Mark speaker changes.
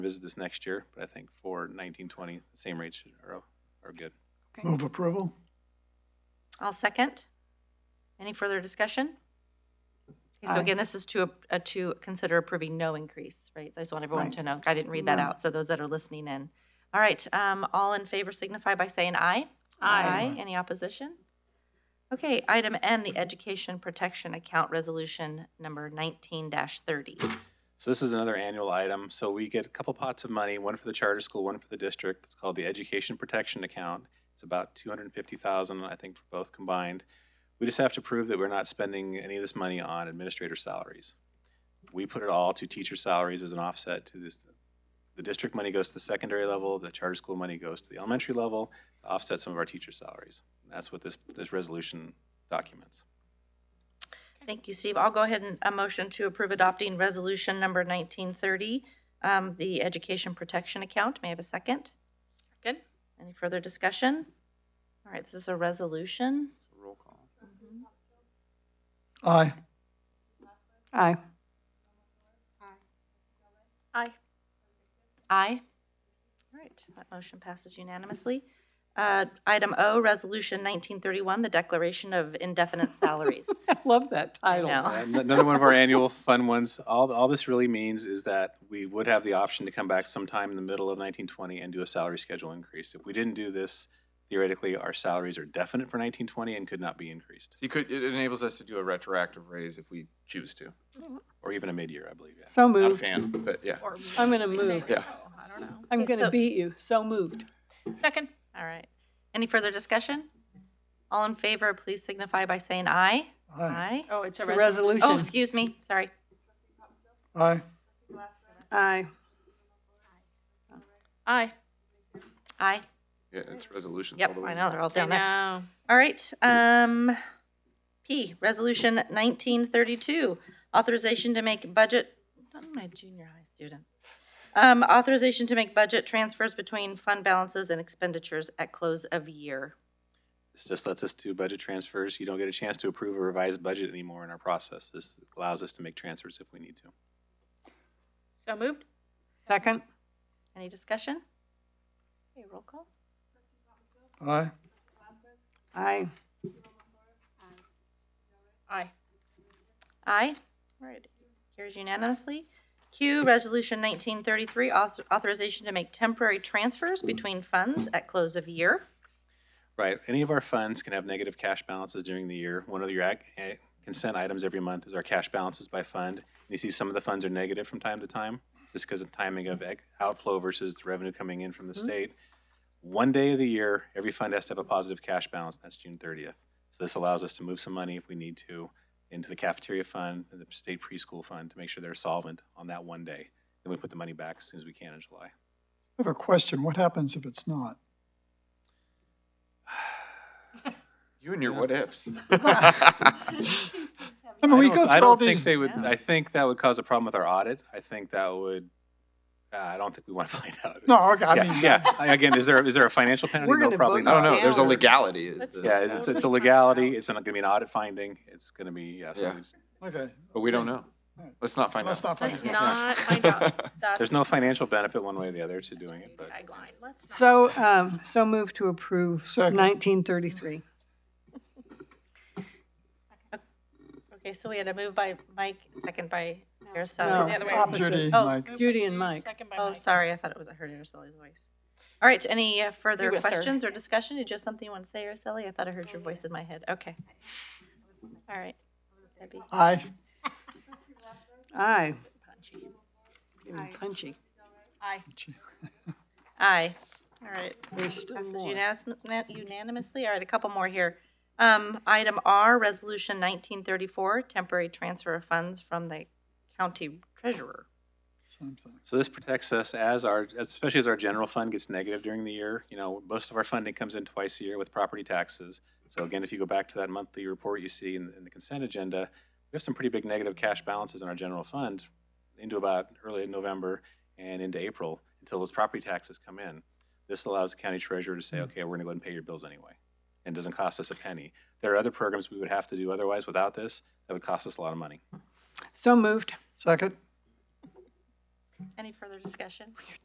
Speaker 1: visit this next year, but I think for 1920, the same rates should- are, are good.
Speaker 2: Move approval?
Speaker 3: I'll second. Any further discussion? Okay, So
Speaker 2: Aye.
Speaker 3: again, this is to, a- to consider approving no increase, right? I just want everyone
Speaker 2: Right.
Speaker 3: to know. I didn't read that
Speaker 2: No.
Speaker 3: out, so those that are listening in. All right, um, all in favor signify by saying aye.
Speaker 2: Aye.
Speaker 3: Any opposition? Okay, item N, the Education Protection Account Resolution Number 19-30.
Speaker 1: So this is another annual item. So we get a couple pots of money, one for the charter school, one for the district. It's called the Education Protection Account. It's about 250,000, I think, for both combined. We just have to prove that we're not spending any of this money on administrator salaries. We put it all to teacher salaries as an offset to this. The district money goes to the secondary level, the charter school money goes to the elementary level, to offset some of our teacher salaries. That's what this, this resolution documents.
Speaker 3: Thank you, Steve. I'll go ahead and a motion to approve adopting Resolution Number 1930, um, the Education Protection Account. May I have a second?
Speaker 4: Second.
Speaker 3: Any further discussion? All right, this is a resolution.
Speaker 1: Roll call.
Speaker 2: Aye.
Speaker 4: Aye. Aye.
Speaker 3: Aye. All right, that motion passes unanimously. Uh, Item O, Resolution 1931, the Declaration of Indefinite Salaries.
Speaker 4: I love that
Speaker 3: I
Speaker 4: title.
Speaker 3: know.
Speaker 1: Yeah, an- Uh, Another one of our annual fun ones. All, all this really means is that we would have the option to come back sometime in the middle of 1920 and do a salary schedule increase. If we didn't do this, theoretically, our salaries are definite for 1920 and could not be increased,
Speaker 5: So you could, it enables us to do a retroactive raise if we choose to.
Speaker 1: or even a mid-year, I believe, yeah.
Speaker 4: So
Speaker 5: Not a
Speaker 4: moved.
Speaker 5: fan, but yeah.
Speaker 6: Or
Speaker 4: I'm gonna
Speaker 6: we say
Speaker 4: move.
Speaker 5: Yeah.
Speaker 6: no, Oh, I don't know.
Speaker 4: I'm
Speaker 3: Okay,
Speaker 4: going to
Speaker 3: so-
Speaker 4: beat you. So moved.
Speaker 6: Second.
Speaker 3: All right. Any further discussion? All in favor, please signify by saying aye.
Speaker 2: Aye.
Speaker 3: Aye.
Speaker 6: Oh, it's a resolution.
Speaker 4: Resolution.
Speaker 3: Oh, excuse me, sorry.
Speaker 2: Aye.
Speaker 4: Aye.
Speaker 6: Aye.
Speaker 3: Aye.
Speaker 5: Yeah, it's resolutions. all
Speaker 3: Yep,
Speaker 5: the way.
Speaker 3: I know, they're all
Speaker 6: I
Speaker 3: down there.
Speaker 6: know.
Speaker 3: All right, um, P, Resolution 1932, authorization to make budget, not my junior high student. Um, authorization to make budget transfers between fund balances and expenditures at close of year.
Speaker 1: This just lets us do budget transfers. You don't get a chance to approve a revised budget anymore in our process. This allows us to make transfers if we need to.
Speaker 6: So moved.
Speaker 4: Second.
Speaker 3: Any discussion? Okay, roll call.
Speaker 2: Aye.
Speaker 4: Aye.
Speaker 6: Aye.
Speaker 3: Aye. All right, carries unanimously. Q, Resolution 1933, author- authorization to make temporary transfers between funds at close of year.
Speaker 1: Right. Any of our funds can have negative cash balances during the year. One of your ac- eh, consent items every month is our cash balances by fund. You see some of the funds are negative from time to time, just because of timing of ec- outflow versus the revenue coming in from the state. One day of the year, every fund has to have a positive cash balance, and that's June thirtieth. So this allows us to move some money if we need to into the cafeteria fund and the state preschool fund to make sure they're solvent on that one day. Then we put the money back as soon as we can in July.
Speaker 2: I have a question. What happens if it's not?
Speaker 5: You and your what ifs.
Speaker 2: I mean, we
Speaker 1: don't-
Speaker 2: go
Speaker 1: I
Speaker 2: through
Speaker 1: don't
Speaker 2: all
Speaker 1: think
Speaker 2: these.
Speaker 1: They would,
Speaker 3: No.
Speaker 1: I think that would cause a problem with our audit. I think that would, uh, I don't think we want to find out.
Speaker 2: No, okay, I
Speaker 1: Yeah,
Speaker 2: mean,
Speaker 1: yeah. I- Again, is there, is there a financial penalty?
Speaker 4: We're
Speaker 1: No,
Speaker 4: gonna
Speaker 1: probably
Speaker 4: vote
Speaker 5: I don't
Speaker 1: not.
Speaker 5: know. There's a
Speaker 4: Down.
Speaker 5: legality. Is
Speaker 6: Let's
Speaker 5: the-
Speaker 1: Yeah, it's, it's a legality. It's not going to be an audit finding. It's going to be, yeah, so
Speaker 5: Yeah.
Speaker 1: we just-
Speaker 2: okay.
Speaker 5: But we don't know.
Speaker 2: Alright.
Speaker 5: Let's not find
Speaker 2: Let's
Speaker 5: out.
Speaker 2: not find
Speaker 6: Let's
Speaker 2: it.
Speaker 6: not find out. That's
Speaker 1: there's no financial benefit one way or the other to doing it,
Speaker 6: the
Speaker 1: but
Speaker 6: tagline. Let's not.
Speaker 4: So, um, so moved to approve
Speaker 2: Second.
Speaker 4: 1933.
Speaker 3: Okay, so we had a move by Mike, second by
Speaker 4: No,
Speaker 3: Araceli.
Speaker 6: the other way.
Speaker 4: opposite.
Speaker 2: Judy,
Speaker 3: Oh.
Speaker 2: Mike.
Speaker 6: Moved by
Speaker 4: Judy
Speaker 6: you,
Speaker 4: and Mike.
Speaker 6: Second by
Speaker 3: Oh,
Speaker 6: Mike.
Speaker 3: sorry, I thought it was, I heard Aracella's voice. All right, any uh, further
Speaker 6: You were third.
Speaker 3: questions or discussion? Did you have something you want to say, Araceli? I thought I heard your voice in my head. Okay. All right. That'd be
Speaker 2: Aye.
Speaker 4: Aye.
Speaker 3: punchy.
Speaker 4: Getting Punchy.
Speaker 6: Aye.
Speaker 3: Aye. All right.
Speaker 4: There's still
Speaker 3: Passes
Speaker 4: more.
Speaker 3: unanimous- unanimously. All right, a couple more here. Um, Item R, Resolution 1934, temporary transfer of funds from the county treasurer.
Speaker 2: Something.
Speaker 1: So this protects us as our, especially as our general fund gets negative during the year. You know, most of our funding comes in twice a year with property taxes. So again, if you go back to that monthly report you see in, in the consent agenda, we have some pretty big negative cash balances in our general fund into about early November and into April until those property taxes come in. This allows the county treasurer to say, okay, we're gonna go ahead and pay your bills anyway. And it doesn't cost us a penny. There are other programs we would have to do otherwise without this that would cost us a lot of money.
Speaker 4: So moved.
Speaker 2: Second?
Speaker 3: Any further discussion?